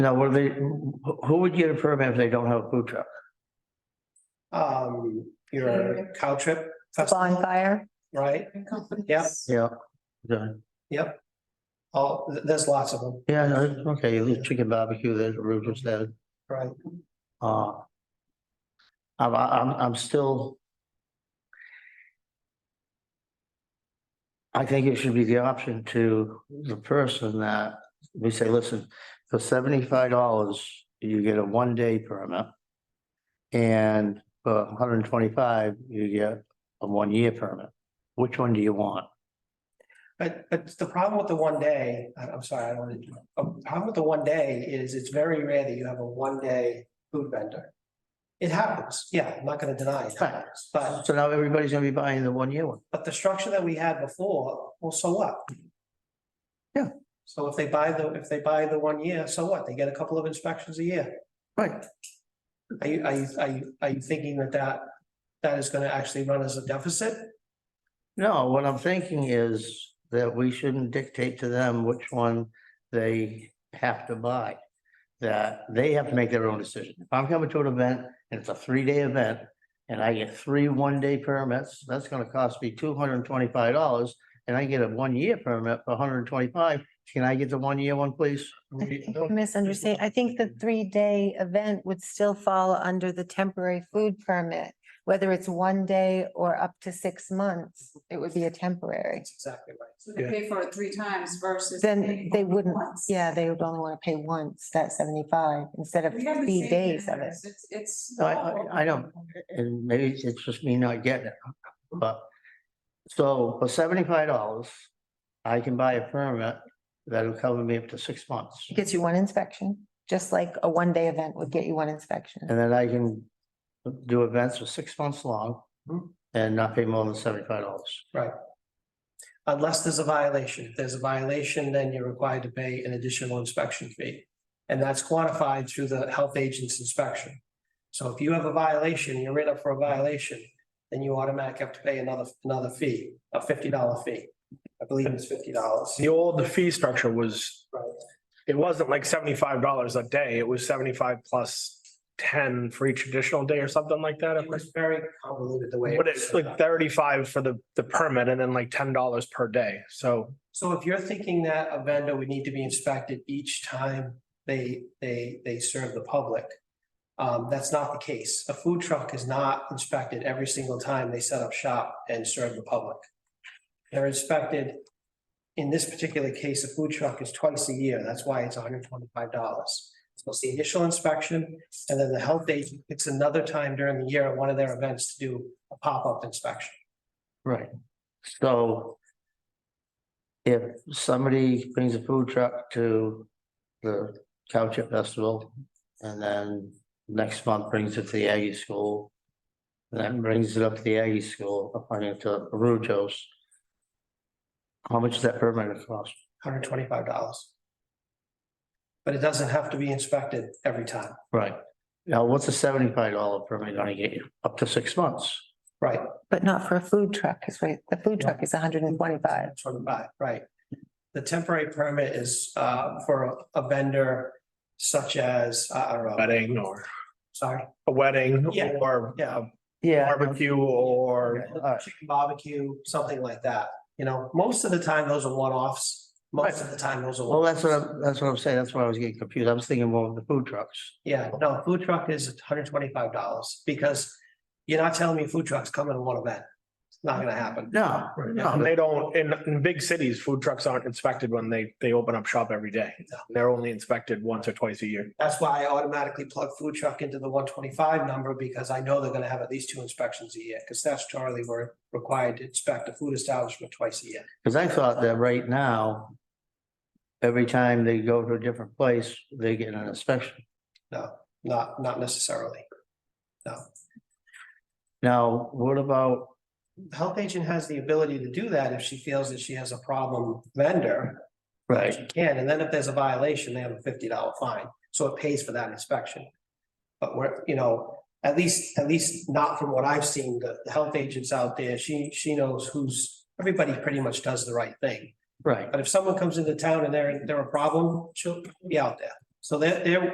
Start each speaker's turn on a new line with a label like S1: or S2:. S1: Now, what do they, who who would get a permit if they don't have a food truck?
S2: um, your cow trip festival,
S3: bonfire.
S2: right? Yeah.
S1: Yeah. Yeah,
S2: Yep. Oh, th- there's lots of them,
S1: yeah, no, okay, you have chicken barbecue, there's what Ruth just said.
S2: right?
S1: Uh. I'm, I'm, I'm still. I think it should be the option to the person that we say, listen, for seventy-five dollars, you get a one-day permit. And for hundred and twenty-five, you get a one-year permit. Which one do you want?
S2: But, but the problem with the one day, I- I'm sorry, I don't want to, Um, the problem with the one day is it's very rare that you have a one day food vendor. It happens, yeah, I'm not gonna deny it happens, but,
S1: So now everybody's gonna be buying the one-year one.
S2: but the structure that we had before, well, so what?
S1: Yeah.
S2: So if they buy the, if they buy the one year, so what? They get a couple of inspections a year.
S1: Right.
S2: Are you, are you, are you, are you thinking that that, that is gonna actually run as a deficit?
S1: No, what I'm thinking is that we shouldn't dictate to them which one they have to buy. That they have to make their own decision. If I'm coming to an event and it's a three-day event and I get three one-day permits, that's gonna cost me two hundred and twenty-five dollars. And I get a one-year permit for $125. hundred and twenty-five. Can I get the one-year one, please?
S3: I think you Misunderstand. I think the three-day event would still fall under the temporary food permit. Whether it's one day or up to six months, it would be a temporary.
S2: That's exactly right.
S4: They pay for it three times versus.
S3: Then
S4: paying
S3: they
S4: only
S3: wouldn't,
S4: once.
S3: yeah, they would only want to pay once, that seventy-five, instead of
S4: We have the
S3: three
S4: same
S3: days of it.
S4: vendors. It's, it's.
S1: No, I- I- I don't. and maybe it's- it's just me not getting it, but. So for seventy-five dollars, I can buy a permit that'll cover me up to six months.
S3: It Gets you one inspection, just like a one-day event would get you one inspection.
S1: And then I can do events for six months long
S2: Mhm.
S1: and not pay more than seventy-five dollars.
S2: Unless there's a violation. If there's a violation, then you're required to pay an additional inspection fee. And that's quantified through the health agent's inspection. So if you have a violation, you're in up for a violation, then you automatically have to pay another, another fee, a fifty dollar fee. I believe it's fifty dollars.
S5: The old, the fee structure was,
S2: Right.
S5: it wasn't like seventy-five dollars a day. It was seventy-five plus ten for each additional day or something like that.
S2: It was very convoluted the way. it
S5: But
S2: was
S5: it's
S2: set up.
S5: like thirty-five for the, the permit and then like ten dollars per day. So
S2: So if you're thinking that a vendor would need to be inspected each time they, they, they serve the public. Um, that's not the case. A food truck is not inspected every single time they set up shop and serve the public. They're inspected, in this particular case, a food truck is twice a year. That's why it's hundred and twenty-five dollars. So it's the initial inspection, and then the health agent picks another time during the year at one of their events to do a pop-up inspection.
S1: Right. So if somebody brings a food truck to the cow chip festival and then next month brings it to the Aggie School, then brings it up to the Aggie School, up on into Rujo's, how much does that permit gonna cost?
S2: hundred twenty-five dollars. But it doesn't have to be inspected every time,
S1: Right. Now, what's a seventy-five dollar permit gonna get you? Up to six months.
S2: right?
S3: But not for a food truck, is right, the food truck is hundred and twenty-five.
S2: Twenty-five, right. The temporary permit is uh for a vendor such as, I I don't know,
S5: wedding or
S2: sorry.
S5: a wedding
S2: Yeah.
S5: or
S2: Yeah.
S5: a barbecue or
S1: Alright.
S2: Chicken barbecue, something like that, you know, most of the time, those are one-offs. Most of the time, those are.
S1: Well, that's what,
S2: one-offs.
S1: I'm- that's what I'm saying. That's why I was getting confused. I was thinking more of the food trucks.
S2: Yeah, no, food truck is hundred twenty-five dollars because you're not telling me food trucks coming to one event. It's not gonna happen.
S1: No,
S5: No,
S1: no,
S5: they don't, in, in big cities, food trucks aren't inspected when they, they open up shop every day. They're only inspected once or twice a year.
S2: That's why I automatically plug food truck into the one twenty-five number because I know they're gonna have at least two inspections a year, because statutorily we're required to inspect a food establishment twice a year.
S1: because I thought that right now, every time they go to a different place, they get an inspection.
S2: Not, not necessarily.
S1: Now, what about,
S2: The Health agent has the ability to do that if she feels that she has a problem vendor. She
S1: right,
S2: can, and then if there's a violation, they have a fifty dollar fine, so it pays for that inspection. But we're, you know, at least, at least not from what I've seen, the, the health agents out there, she, she knows who's, everybody pretty much does the right thing.
S1: right.
S2: But if someone comes into town and they're, they're a problem, she'll be out there. So they're, they're,